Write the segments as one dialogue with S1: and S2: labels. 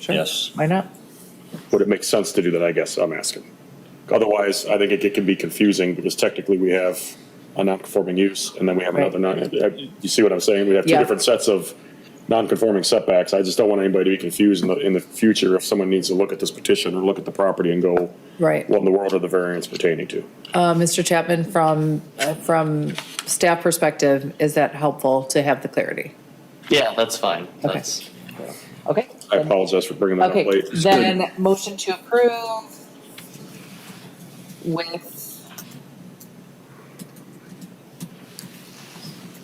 S1: Sure.
S2: Yes.
S1: Why not?
S3: Would it make sense to do that, I guess I'm asking? Otherwise, I think it can- can be confusing because technically we have a non-conforming use and then we have
S1: Right.
S3: another non, you see what I'm saying? We have two
S1: Yeah.
S3: different sets of non-conforming setbacks. I just don't want anybody to be confused in the, in the future if someone needs to look at this petition or look at the property and go,
S1: Right.
S3: what in the world are the variants pertaining to?
S1: Uh, Mr. Chapman, from, uh, from staff perspective, is that helpful to have the clarity?
S2: Yeah, that's fine.
S1: Okay.
S2: That's,
S1: Okay.
S3: I apologize for bringing that up
S1: Okay,
S3: late.
S1: then motion to approve with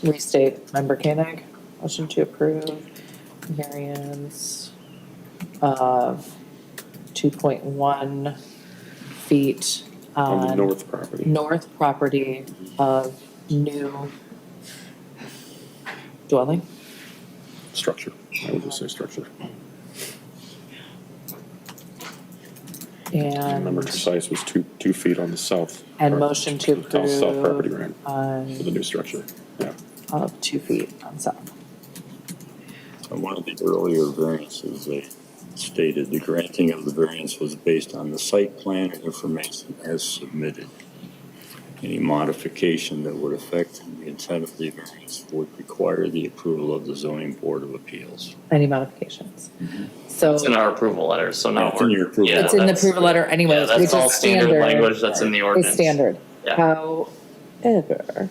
S1: restate, member Koenig, motion to approve variance of two point one feet
S3: On the
S1: on
S3: north property.
S1: north property of new dwelling,
S3: Structure. I would just say structure. I
S1: and,
S3: remember precise was two, two feet on the south.
S1: and
S3: part-
S1: motion to
S3: south- South property,
S1: approve
S3: right,
S1: on
S3: for the new structure, yeah.
S1: of two feet on south.
S4: Uh, One of the earlier variances, they stated the granting of the variance was based on the site plan and information as submitted. Any modification that would affect the intent of the variance would require the approval of the zoning board of appeals.
S1: Any modifications?
S3: Mm-hmm.
S1: So
S2: it's in our approval letter, so now
S4: It's in
S2: we're.
S4: your approval.
S2: yeah,
S1: it's in the
S2: that's-
S1: approval letter
S2: Yeah,
S1: anyway, which
S2: that's all
S1: is
S2: standard
S1: standard.
S2: language that's in the
S1: It's
S2: ordinance.
S1: standard.
S2: Yeah.
S1: However,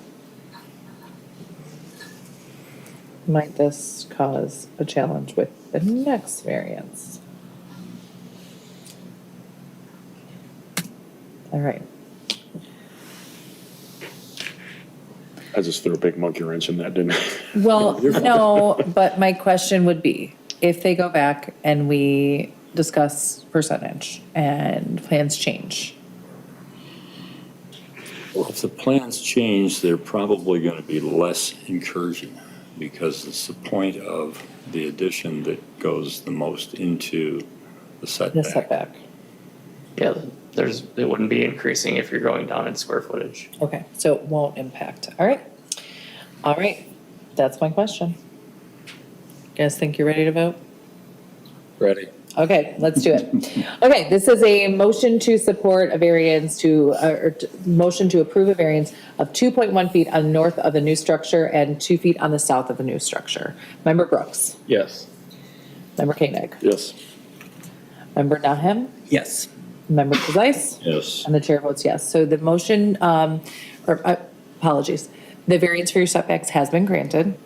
S1: might this cause a challenge with the next variance? All right,
S3: I just threw a big monkey wrench in that, didn't I?
S1: Well, no, but my question would be, if they go back and we discuss percentage and plans change,
S4: Well, if the plans change, they're probably going to be less incursion because it's the point of the addition that goes the most into the
S1: the
S4: setback.
S1: setback,
S2: Yeah, there's, it wouldn't be increasing if you're going down in square footage.
S1: okay, so it won't impact, all right? All right, that's my question. Guys think you're ready to vote?
S4: Ready?
S1: Okay, let's do it. Okay, this is a motion to support a variance to, uh, or t- motion to approve a variance of 2.1 feet on north of the new structure and 2 feet on the south of the new structure. Member Brooks? Yes. Member Koenig?
S3: Yes.
S1: Member Nahem? Yes. Member Precise?
S4: Yes.
S1: And the chair votes yes. So the motion, um, or uh, apologies, the variance for your setbacks has been granted.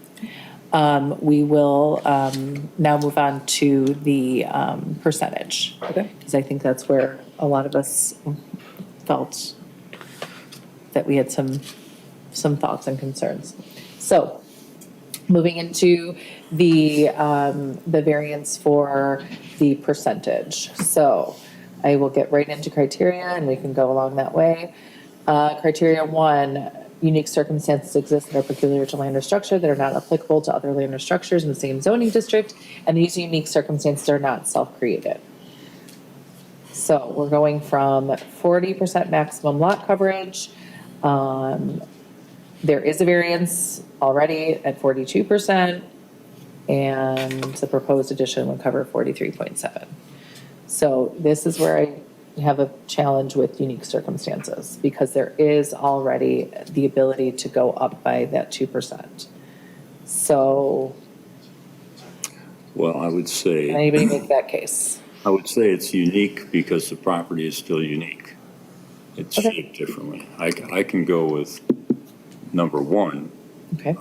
S1: Um, we will, um, now move on to the, um, percentage. Okay. Because I think that's where a lot of us felt that we had some, some thoughts and concerns. So, moving into the, um, the variance for the percentage. So I will get right into criteria and we can go along that way. Uh, criteria one, unique circumstances exist that are peculiar to land or structure that are not applicable to other land or structures in the same zoning district, and these unique circumstances are not self-created. So we're going from forty percent maximum lot coverage, um, there is a variance already at forty-two percent, and the proposed addition would cover forty-three point seven. So this is where I have a challenge with unique circumstances, because there is already the ability to go up by that two percent. So,
S4: Well, I would say.
S1: can anybody make that case?
S4: I would say it's unique because the property is still unique. It's
S1: Okay.
S4: shaped differently. I, c- I can go with number one
S1: Okay,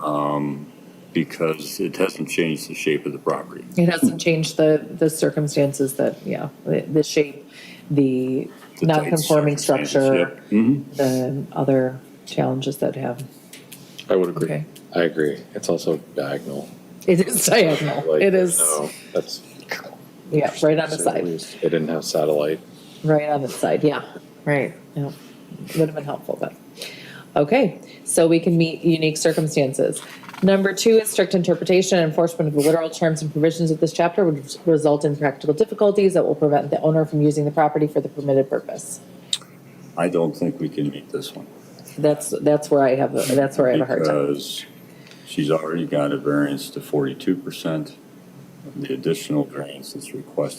S4: because it hasn't changed the shape of the property.
S1: it hasn't changed the, the circumstances that, yeah, the, the shape, the
S4: The tight
S1: non-conforming
S4: circumstances,
S1: structure,
S4: yep. Mhm.
S1: the other challenges that have,
S5: I would agree.
S1: okay.
S5: I agree. It's also diagonal.
S1: It is diagonal.
S5: Like,
S1: It is,
S5: no, That's.
S1: yeah, right on the
S5: so
S1: side.
S5: we- They didn't have satellite.
S1: Right on the side, yeah, right, yeah, would have been helpful, but, okay, so we can meet unique circumstances. Number two is strict interpretation and enforcement of the literal terms and provisions of this chapter would result in practical difficulties that will prevent the owner from using the property for the permitted purpose.
S4: I don't think we can meet this one.
S1: That's, that's where I have, a- that's where I have a hard time.
S4: Because she's already got a variance to forty-two percent. The additional variance that's requested